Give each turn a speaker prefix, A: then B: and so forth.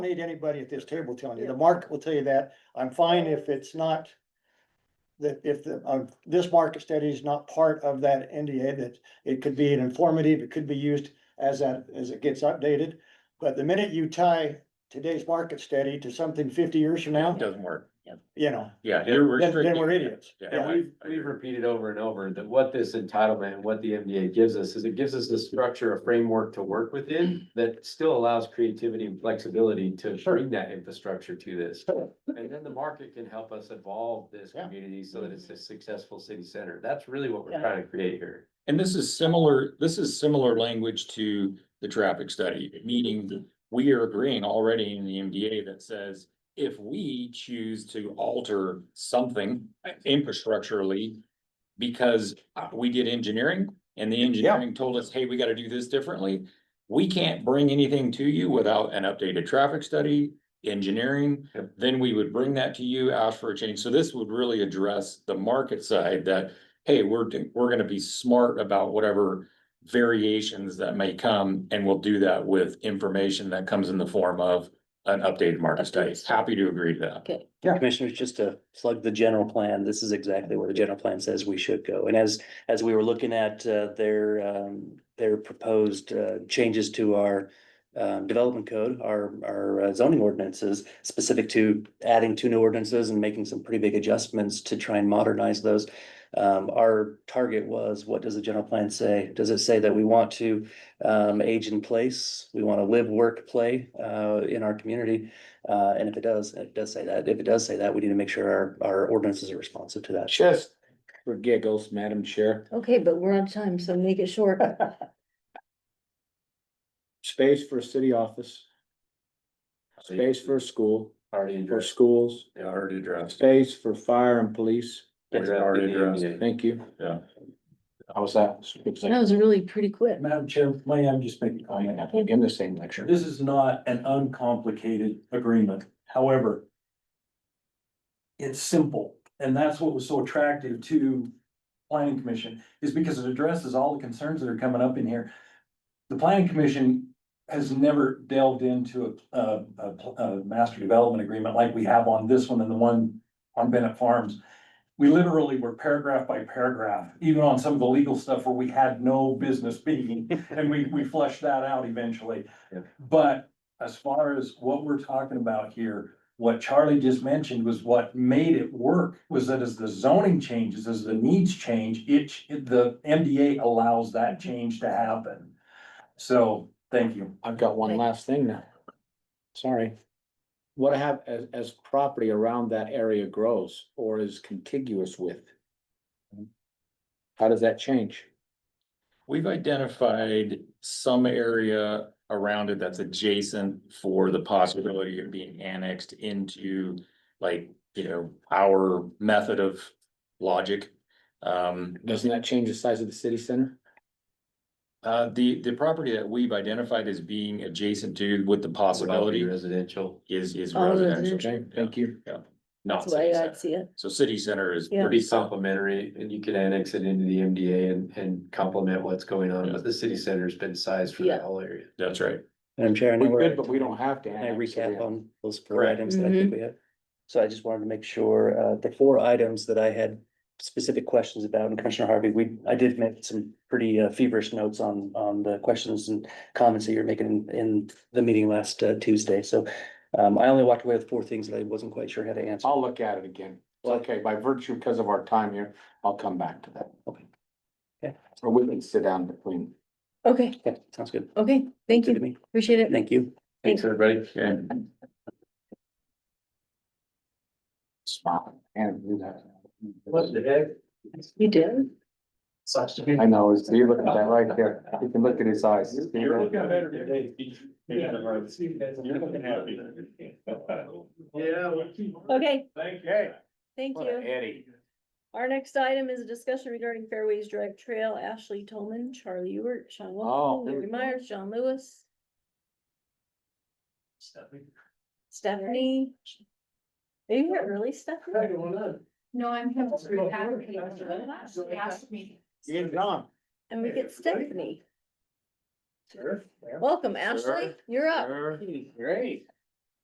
A: need anybody at this table telling you. The market will tell you that. I'm fine if it's not. That if the, um, this market study is not part of that NDA, that it could be an informative, it could be used as that, as it gets updated. But the minute you tie today's market study to something fifty years from now,
B: Doesn't work.
A: you know,
B: Yeah, you're
A: then,
B: restricted.
A: then we're idiots.
B: Yeah.
C: And
A: Yeah,
C: we've, we've repeated over and over that what this entitlement and what the MDA gives us is it gives us a structure, a framework to work within that still allows creativity and flexibility to
A: Sure.
C: bring that infrastructure to this.
A: Sure.
C: And then the market can help us evolve this
A: Yeah.
C: community so that it's a successful city center. That's really what we're
D: Yeah.
C: trying to create here.
B: And this is similar, this is similar language to the traffic study, meaning we are agreeing already in the MDA that says if we choose to alter something infrastructurally because uh, we did engineering and the engineering told us, hey, we gotta do this differently, we can't bring anything to you without an updated traffic study, engineering,
C: Yep.
B: then we would bring that to you, ask for a change. So this would really address the market side that hey, we're, do- we're gonna be smart about whatever variations that may come, and we'll do that with information that comes in the form of an updated market study.
E: Updates.
B: Happy to agree to that.
E: Okay.
A: Yeah.
E: Commissioners, just to plug the general plan, this is exactly where the general plan says we should go. And as, as we were looking at uh, their, um, their proposed uh, changes to our um, development code, our, our uh, zoning ordinances, specific to adding two new ordinances and making some pretty big adjustments to try and modernize those. Um, our target was, what does the general plan say? Does it say that we want to um, age in place? We want to live, work, play uh, in our community? Uh, and if it does, it does say that, if it does say that, we need to make sure our, our ordinances are responsive to that.
B: Just for giggles, Madam Chair,
D: Okay, but we're on time, so make it short.
F: space for a city office, space for a school,
C: Already
F: for
C: addressed.
F: schools,
B: already addressed.
F: space for fire and police.
B: It's already addressed.
F: Thank you.
B: Yeah.
F: How was that?
D: That was really pretty quick.
G: Madam Chair, may I just make a comment?
F: In the same lecture.
G: This is not an uncomplicated agreement, however. It's simple, and that's what was so attractive to planning commission, is because it addresses all the concerns that are coming up in here. The planning commission has never delved into a, a, a- a master development agreement like we have on this one and the one on Bennett Farms. We literally were paragraph by paragraph, even on some of the legal stuff where we had no business being, and we, we flushed that out eventually.
C: Yep.
G: But as far as what we're talking about here, what Charlie just mentioned was what made it work was that as the zoning changes, as the needs change, it, ch- the MDA allows that change to happen. So, thank you.
F: I've got one
D: Okay.
F: last thing now. Sorry. What I have as, as property around that area grows or is contiguous with? How does that change?
B: We've identified some area around it that's adjacent for the possibility of being annexed into like, you know, our method of logic. Um,
F: Doesn't that change the size of the city center?
B: Uh, the, the property that we've identified as being adjacent to with the possibility
C: Residential.
B: is, is
D: All
B: residential,
D: residential.
F: Okay, thank you.
B: not
D: That's the way
B: city
D: I
B: center.
D: see it.
B: So city center is.
D: Yeah.
B: pretty
C: Be complementary and you can annex it into the MDA and, and complement what's going on, but the city center's been sized for that
D: Yeah.
C: whole area.
B: That's right.
E: Madam Chair, I know
F: We
E: we're.
F: could, but we don't have to.
E: Can I
F: annex it.
E: recap on those four
B: Correct.
E: items that I think we had? So I just wanted to make sure, uh, the four items that I had specific questions about, and Commissioner Harvey, we, I did make some pretty uh, feverish notes on, on the questions and comments that you were making in, in the meeting last uh, Tuesday, so um, I only walked away with four things that I wasn't quite sure how to answer.
F: I'll look at it again. It's okay, by virtue, because of our time here, I'll come back to that.
E: Okay. Okay.
F: Or we can sit down between.
D: Okay,
E: Okay, sounds good.
D: okay, thank
E: Good to
D: you,
E: me.
D: appreciate it.
E: Thank you.
C: Thanks, everybody.
F: Smile and do that.
C: heck?
D: You did?
F: I know, it's- you look at that right there. You can look at his eyes.
C: You're looking better today. Yeah, You're looking happy. Yeah.
D: Okay,
C: Thank you.
D: thank you.
F: Eddie.
D: Our next item is a discussion regarding Fairways Drive Trail, Ashley Tolman, Charlie Ewert, Sean
F: Oh,
D: Wilson,
F: there we
D: Larry Myers, John Lewis, Stephanie. Are you here early, Stephanie?
H: No, I'm here to repack.
D: Really?
H: They asked me.
A: You're getting on.
D: And we get Stephanie. Welcome, Ashley, you're up.
F: Great.